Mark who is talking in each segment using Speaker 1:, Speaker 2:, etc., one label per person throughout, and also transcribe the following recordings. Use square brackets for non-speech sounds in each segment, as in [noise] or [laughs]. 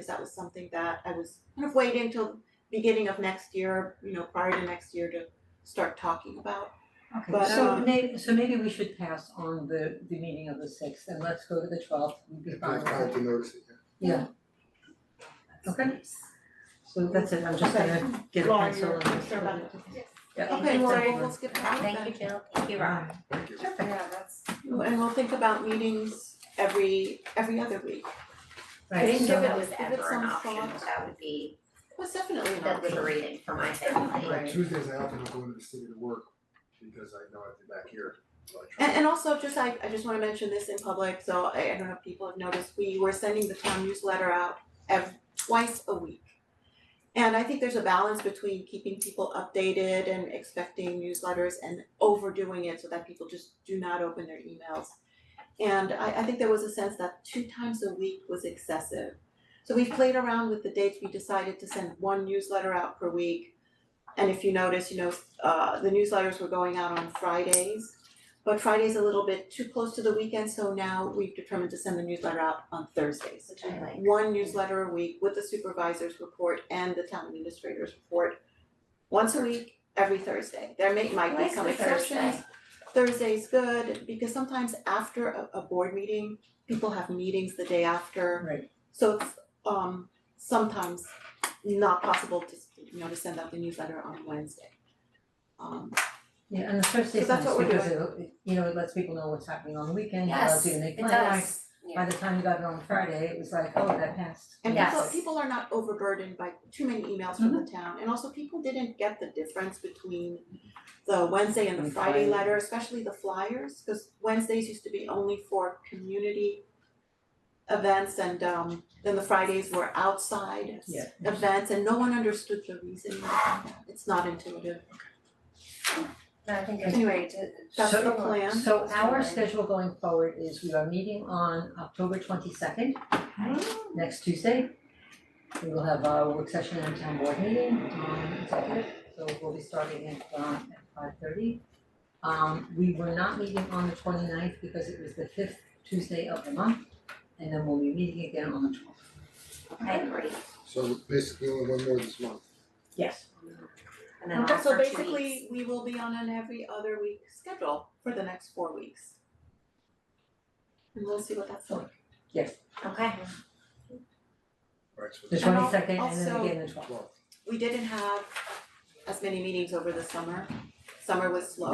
Speaker 1: because that was something that I was kind of waiting till beginning of next year, you know, prior to next year to start talking about.
Speaker 2: Okay,
Speaker 1: But,
Speaker 2: so
Speaker 1: um,
Speaker 2: maybe, so maybe we should pass on the the meeting of the sixth and let's go to the twelfth and be
Speaker 3: If
Speaker 2: fine
Speaker 3: I
Speaker 2: with that.
Speaker 3: had to notice it,
Speaker 2: Yeah, Okay. so that's it, I'm just gonna get a
Speaker 1: Lauren,
Speaker 2: pencil
Speaker 1: you're
Speaker 2: and.
Speaker 1: concerned about it.
Speaker 2: Yeah.
Speaker 1: Okay, Lori, we'll skip that.
Speaker 4: Thank you, Jill, thank you, Rob.
Speaker 3: yeah, thank you.
Speaker 2: Perfect,
Speaker 4: that's.
Speaker 1: And we'll think about meetings every, every other week.
Speaker 2: right,
Speaker 4: if
Speaker 2: so,
Speaker 4: it was
Speaker 1: Give it
Speaker 4: ever
Speaker 1: some
Speaker 4: an option,
Speaker 1: thought.
Speaker 4: that would be
Speaker 1: That's definitely an option.
Speaker 4: liberating for my family.
Speaker 3: Like
Speaker 2: Right.
Speaker 3: Tuesdays, I often go into the city to work because I know I'll be back here, so I try.
Speaker 1: And and also just I I just wanna mention this in public, so I I don't know if people have noticed, we were sending the town newsletter out ev- twice a week. And I think there's a balance between keeping people updated and expecting newsletters and overdoing it so that people just do not open their emails. And I I think there was a sense that two times a week was excessive. So we've played around with the dates, we decided to send one newsletter out per week. And if you notice, you know, uh the newsletters were going out on Fridays. But Friday's a little bit too close to the weekend, so now we've determined to send the newsletter out on Thursdays.
Speaker 4: Which I like.
Speaker 1: One newsletter a week with the supervisor's report and the town administrator's report, once a week, every Thursday. There may, might be
Speaker 4: Like
Speaker 1: some
Speaker 4: the
Speaker 1: exceptions.
Speaker 4: Thursday.
Speaker 1: Thursday's good, because sometimes after a, a board meeting, people have meetings the day after.
Speaker 2: right,
Speaker 1: So it's, um, sometimes not possible to, you know, to send out the newsletter on Wednesday. Um,
Speaker 2: yeah, and the first
Speaker 1: So
Speaker 2: is
Speaker 1: that's
Speaker 2: nice
Speaker 1: what we're
Speaker 2: because it, you know, it lets people know what's happening on the weekend, it allows
Speaker 4: Yes,
Speaker 2: you to make
Speaker 4: it
Speaker 2: plans.
Speaker 4: does,
Speaker 2: By
Speaker 4: yeah,
Speaker 2: the time you got it on Friday, it was like, oh, that passed.
Speaker 1: And
Speaker 4: Yeah.
Speaker 1: people
Speaker 4: Yes.
Speaker 1: people are not overburdened by too many emails from the
Speaker 2: Mm-hmm.
Speaker 1: town, and also people didn't get the difference between the Wednesday and the
Speaker 2: And
Speaker 1: Friday
Speaker 2: Friday.
Speaker 1: letter, especially the flyers, cause Wednesdays used to be only for community events and um then the Fridays were outside
Speaker 2: Yeah.
Speaker 1: events and no one understood the reason. It's not intuitive.
Speaker 4: No, I think it's
Speaker 1: Anyway,
Speaker 4: great to-
Speaker 1: That's
Speaker 2: So-
Speaker 1: the plan.
Speaker 2: So our
Speaker 4: Right.
Speaker 2: schedule going forward is we are meeting on October twenty second, next Tuesday. We will have our work session and town board meeting on executive, so we'll be starting at um at five thirty. Um we were not meeting on the 29th because it was the fifth Tuesday of the month, and then we'll be meeting again on the twelfth.
Speaker 4: I agree,
Speaker 3: So basically only one more this month.
Speaker 2: Yes.
Speaker 4: and then off
Speaker 1: So
Speaker 4: for two weeks.
Speaker 1: basically, we will be on an every other week schedule for the next four weeks. And we'll see what that's like.
Speaker 4: Okay,
Speaker 3: Alright, so
Speaker 2: The
Speaker 3: it's
Speaker 1: And
Speaker 2: twenty
Speaker 1: al-
Speaker 2: second and then
Speaker 1: also-
Speaker 2: again the twelfth.
Speaker 3: twelve.
Speaker 1: we didn't have as many meetings over the summer. Summer was slow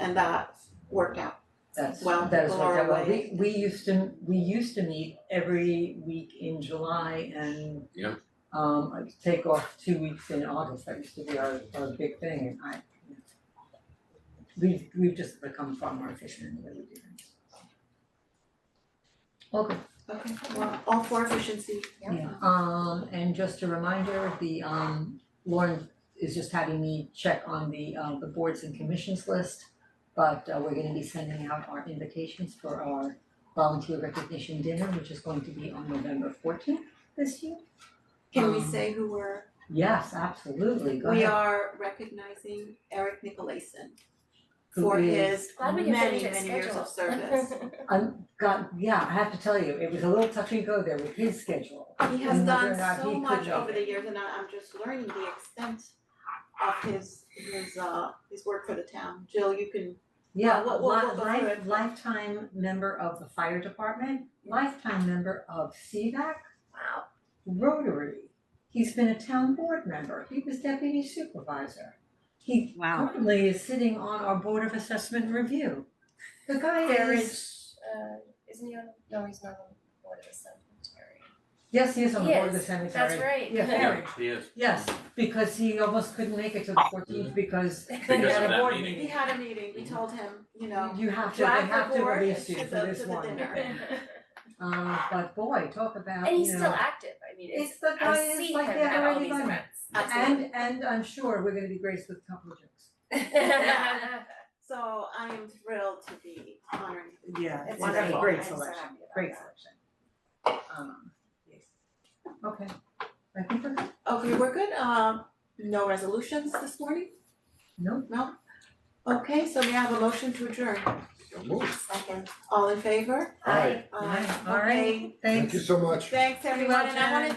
Speaker 1: and that worked out.
Speaker 2: That's
Speaker 1: Well,
Speaker 2: that is
Speaker 1: people
Speaker 2: what
Speaker 1: are
Speaker 2: that was.
Speaker 1: away.
Speaker 2: We we used to, we used to meet every week in July and
Speaker 5: Yeah.
Speaker 2: um I'd take off two weeks in August, that used to be our our big thing and I we've we've just become far more efficient in the way we do things. Okay,
Speaker 1: Okay, well, all for efficiency.
Speaker 2: yeah, um and just a reminder, the um Lauren is just having me check on the uh the boards and commissions list. But uh we're gonna be sending out our invitations for our volunteer recognition dinner, which is going to be on November fourteenth this year.
Speaker 1: Can we
Speaker 2: Um,
Speaker 1: say who we're,
Speaker 2: Yes, absolutely, go
Speaker 1: we
Speaker 2: ahead.
Speaker 1: are recognizing Eric Nicolason
Speaker 2: Who
Speaker 1: for
Speaker 2: is-
Speaker 1: his
Speaker 4: glad we can
Speaker 1: many,
Speaker 4: finish
Speaker 1: many years of service.
Speaker 2: I'm got, yeah, I have to tell you, it was a little touch and go there with his schedule.
Speaker 1: [laughs] He has
Speaker 2: And whether or
Speaker 1: done
Speaker 2: not
Speaker 1: so
Speaker 2: he could
Speaker 1: much
Speaker 2: make
Speaker 1: over
Speaker 2: it.
Speaker 1: the years and I- I'm just learning the extent of his his uh his work for the town. Jill, you can,
Speaker 2: Yeah,
Speaker 1: Well, we'll- we'll
Speaker 2: li-
Speaker 1: go through
Speaker 2: life
Speaker 1: it.
Speaker 2: lifetime member of the fire department, lifetime member of CVAC,
Speaker 4: Wow,
Speaker 2: Rotary. He's been a town board member, he was deputy supervisor. He
Speaker 6: Wow.
Speaker 2: currently is sitting on our board of assessment review. The guy
Speaker 7: There
Speaker 2: is,
Speaker 7: is, uh, isn't he on, no, he's not on the board of the cemetery.
Speaker 2: yes, he is on the
Speaker 7: He
Speaker 2: board of the
Speaker 7: is,
Speaker 2: cemetery.
Speaker 7: That's right.
Speaker 2: Yeah, Harry.
Speaker 5: he is.
Speaker 2: Yes, because he almost couldn't make it to the fourteenth because he
Speaker 5: Oh. Because of
Speaker 2: had a
Speaker 5: that
Speaker 2: board
Speaker 5: meeting.
Speaker 1: he had a meeting, we told him, you know,
Speaker 2: You have to, they
Speaker 1: Drive the
Speaker 2: have to
Speaker 1: board
Speaker 2: release you
Speaker 1: to
Speaker 2: for
Speaker 1: the-
Speaker 2: this
Speaker 1: to the
Speaker 2: one.
Speaker 1: dinner.
Speaker 7: [laughs]
Speaker 2: Uh, but boy, talk about,
Speaker 7: And he's
Speaker 2: you
Speaker 7: still
Speaker 2: know,
Speaker 7: active, I mean, it's,
Speaker 2: it's the
Speaker 7: I
Speaker 2: guy is
Speaker 7: see him
Speaker 2: like the
Speaker 7: at all
Speaker 2: already
Speaker 7: these
Speaker 2: done.
Speaker 7: events.
Speaker 2: And and I'm sure we're gonna be graced with a couple of jokes.
Speaker 4: [laughs]
Speaker 1: So I am thrilled to be honoring.
Speaker 2: Yeah,
Speaker 4: It's wonderful.
Speaker 2: great
Speaker 4: I'm so
Speaker 2: selection,
Speaker 4: happy about
Speaker 2: great
Speaker 4: that.
Speaker 2: selection. Um, yes. Okay, I think we're good,
Speaker 1: Okay, we're good, um, no resolutions this morning,
Speaker 2: no,
Speaker 1: no? Okay, so we have a motion to adjourn,
Speaker 3: So move.
Speaker 4: second,
Speaker 1: all in favor?
Speaker 3: Alright,
Speaker 1: Aye.
Speaker 2: all right,
Speaker 1: Okay,
Speaker 2: thanks.
Speaker 3: Thank you so much.
Speaker 1: thanks everyone, and I wanna
Speaker 2: Jen.